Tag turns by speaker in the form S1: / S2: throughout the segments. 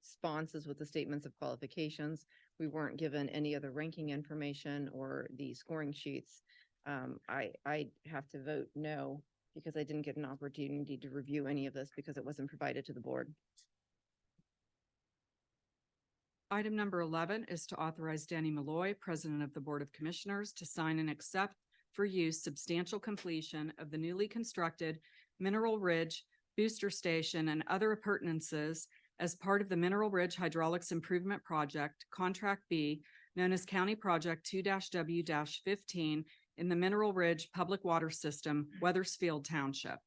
S1: responses with the statements of qualifications. We weren't given any other ranking information or the scoring sheets. Um, I, I have to vote no because I didn't get an opportunity to review any of this because it wasn't provided to the board.
S2: Item number eleven is to authorize Danny Malloy, President of the Board of Commissioners, to sign and accept for use substantial completion of the newly constructed Mineral Ridge Booster Station and other appurtenances as part of the Mineral Ridge Hydraulics Improvement Project, Contract B, known as County Project two W fifteen in the Mineral Ridge Public Water System, Weathersfield Township.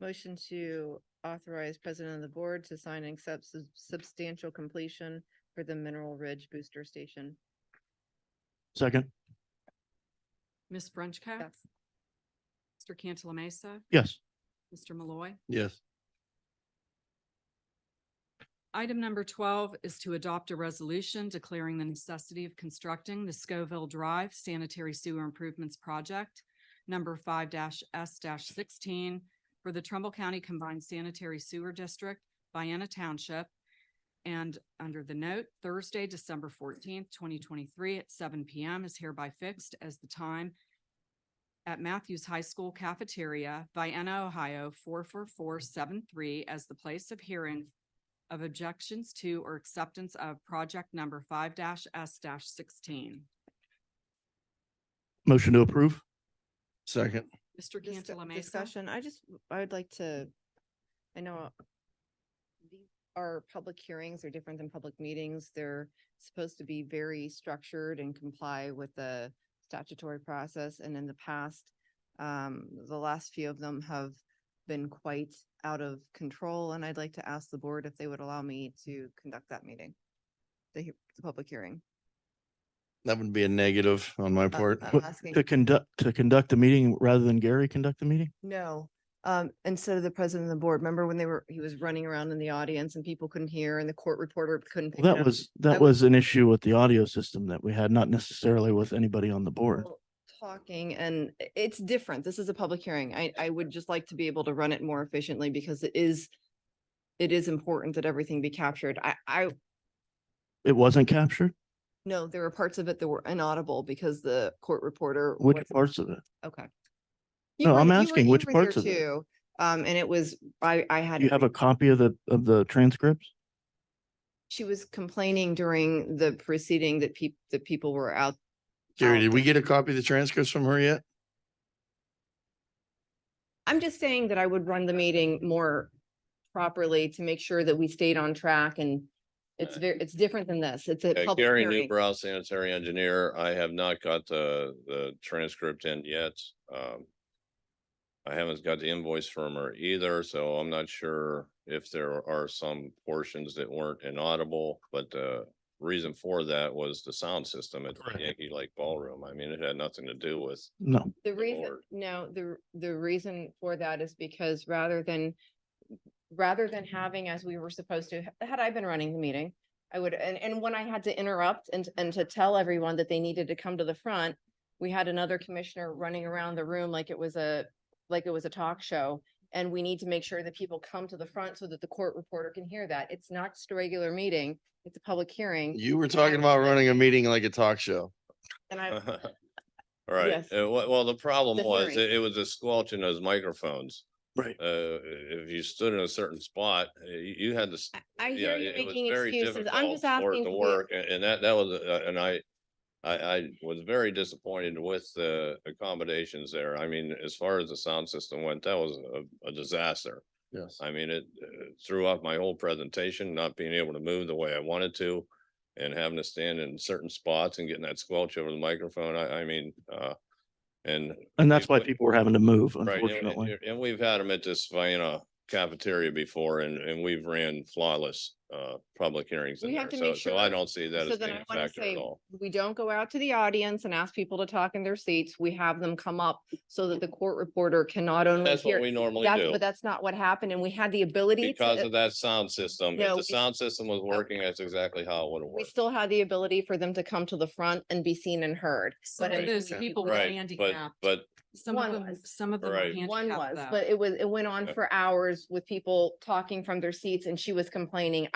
S1: Motion to authorize president of the board to sign and accept sub- substantial completion for the Mineral Ridge Booster Station.
S3: Second,
S2: Ms. Frenchco.
S1: Yes.
S2: Mr. Cantala Mesa,
S3: yes.
S2: Mr. Malloy.
S3: Yes.
S2: Item number twelve is to adopt a resolution declaring the necessity of constructing the Scoville Drive Sanitary Sewer Improvements Project, number five S sixteen, for the Trumbull County Combined Sanitary Sewer District, Vienna Township, and under the note, Thursday, December fourteenth, twenty twenty-three at seven P M is hereby fixed as the time at Matthews High School Cafeteria, Vienna, Ohio, four four four seven three as the place of hearing of objections to or acceptance of project number five S sixteen.
S3: Motion to approve? Second.
S2: Mr.
S1: Discu-
S2: Cantala Mesa.
S1: Discussion, I just, I would like to, I know these are public hearings, they're different than public meetings. They're supposed to be very structured and comply with the statutory process. And in the past, um, the last few of them have been quite out of control. And I'd like to ask the board if they would allow me to conduct that meeting, the, he- the public hearing.
S4: That would be a negative on my
S1: Uh,
S4: part.
S1: I'm
S3: But
S1: asking.
S3: To conduct, to conduct the meeting rather than Gary conduct the meeting?
S1: No, um, instead of the president of the board, remember when they were, he was running around in the audience and people couldn't hear and the court reporter couldn't. pick
S3: Well,
S1: it
S3: That
S1: up?
S3: was,
S1: I
S3: that
S1: would-
S3: was an issue with the audio system that we had, not necessarily with anybody on the board.
S1: Well, Talking and i- it's different. This is a public hearing. I, I would just like to be able to run it more efficiently because it is, it is important that everything be captured. I, I
S3: It wasn't captured?
S1: know there were parts of it that were inaudible because the court reporter.
S3: Which
S1: wasn't-
S3: parts of it?
S1: Okay. You
S3: No,
S1: were-
S3: I'm
S1: you were-
S3: asking
S1: you
S3: which
S1: were there
S3: parts of it?
S1: too, Um, and it was, I, I had.
S3: You have a copy of the, of the transcripts?
S1: She was complaining during the proceeding that peop- that people were out.
S4: Gary,
S1: out.
S4: did we get a copy of the transcripts from her yet?
S1: I'm just saying that I would run the meeting more properly to make sure that we stayed on track and it's very, it's different than this. It's a
S5: Uh,
S1: public
S5: Gary
S1: hearing.
S5: Newbrow, sanitary engineer. I have not got the, the transcript in yet. Um, I haven't got the invoice from her either, so I'm not sure if there are some portions that weren't inaudible, but the reason for that was the sound system at
S3: Correct.
S5: Yankee Lake Ballroom. I mean, it had nothing to do with
S3: No.
S1: The reason,
S5: board.
S1: no, the, the reason for that is because rather than, rather than having as we were supposed to, had I been running the meeting, I would, and, and when I had to interrupt and, and to tell everyone that they needed to come to the front, we had another commissioner running around the room like it was a, like it was a talk show. And we need to make sure that people come to the front so that the court reporter can hear that. It's not just a regular meeting, it's a public hearing.
S4: You were talking about running a meeting like a talk show.
S1: And I,
S5: All right,
S1: Yes.
S5: Uh, wh- well, the
S1: The
S5: problem was,
S1: hearing.
S5: it it was a squelch in those microphones.
S3: Right.
S5: Uh, if you stood in a certain spot, uh, you, you had to s-
S1: I- I hear
S5: Yeah,
S1: you
S5: it was
S1: making
S5: very
S1: excuses. I'm
S5: difficult
S1: just
S5: for it
S1: asking. for
S5: to
S1: the-
S5: Work, a- and that, that was, uh, and I, I, I was very disappointed with the accommodations there. I mean, as far as the sound system went, that was a, a disaster.
S4: Yes.
S5: I mean, it uh, threw off my whole presentation, not being able to move the way I wanted to and having to stand in certain spots and getting that squelch over the microphone. I, I mean, uh, and
S3: And that's why
S5: but-
S3: people were having to move,
S5: Right, and-
S3: unfortunately.
S5: and- And we've had them at this Vienna cafeteria before and, and we've ran flawless, uh, public hearings in
S1: We have
S5: there.
S1: to
S5: So,
S1: make
S5: so I
S1: sure-
S5: don't see that
S1: So
S5: as
S1: then
S5: being
S1: I
S5: a
S1: want to
S5: factor at
S1: say,
S5: all.
S1: we don't go out to the audience and ask people to talk in their seats. We have them come up so that the court reporter can not only
S5: That's what
S1: hear.
S5: we normally
S1: That's,
S5: do.
S1: but that's not what happened and we had the ability
S5: Because of
S1: to,
S5: that sound system,
S1: No,
S5: if
S1: we-
S5: the sound system was working, that's exactly how it would have
S1: we
S5: worked.
S1: still had the ability for them to come to the front and be seen and heard.
S2: Some
S1: But
S2: of
S1: I-
S2: those
S1: Okay.
S2: people were
S5: Right, but,
S2: handicapped.
S5: but
S2: Some of
S1: One
S2: them,
S1: was.
S2: some of them
S5: Right.
S2: are
S1: One
S2: handicapped
S1: was,
S2: though.
S1: but it was, it went on
S5: Yeah.
S1: for hours with people talking from their seats and she was complaining.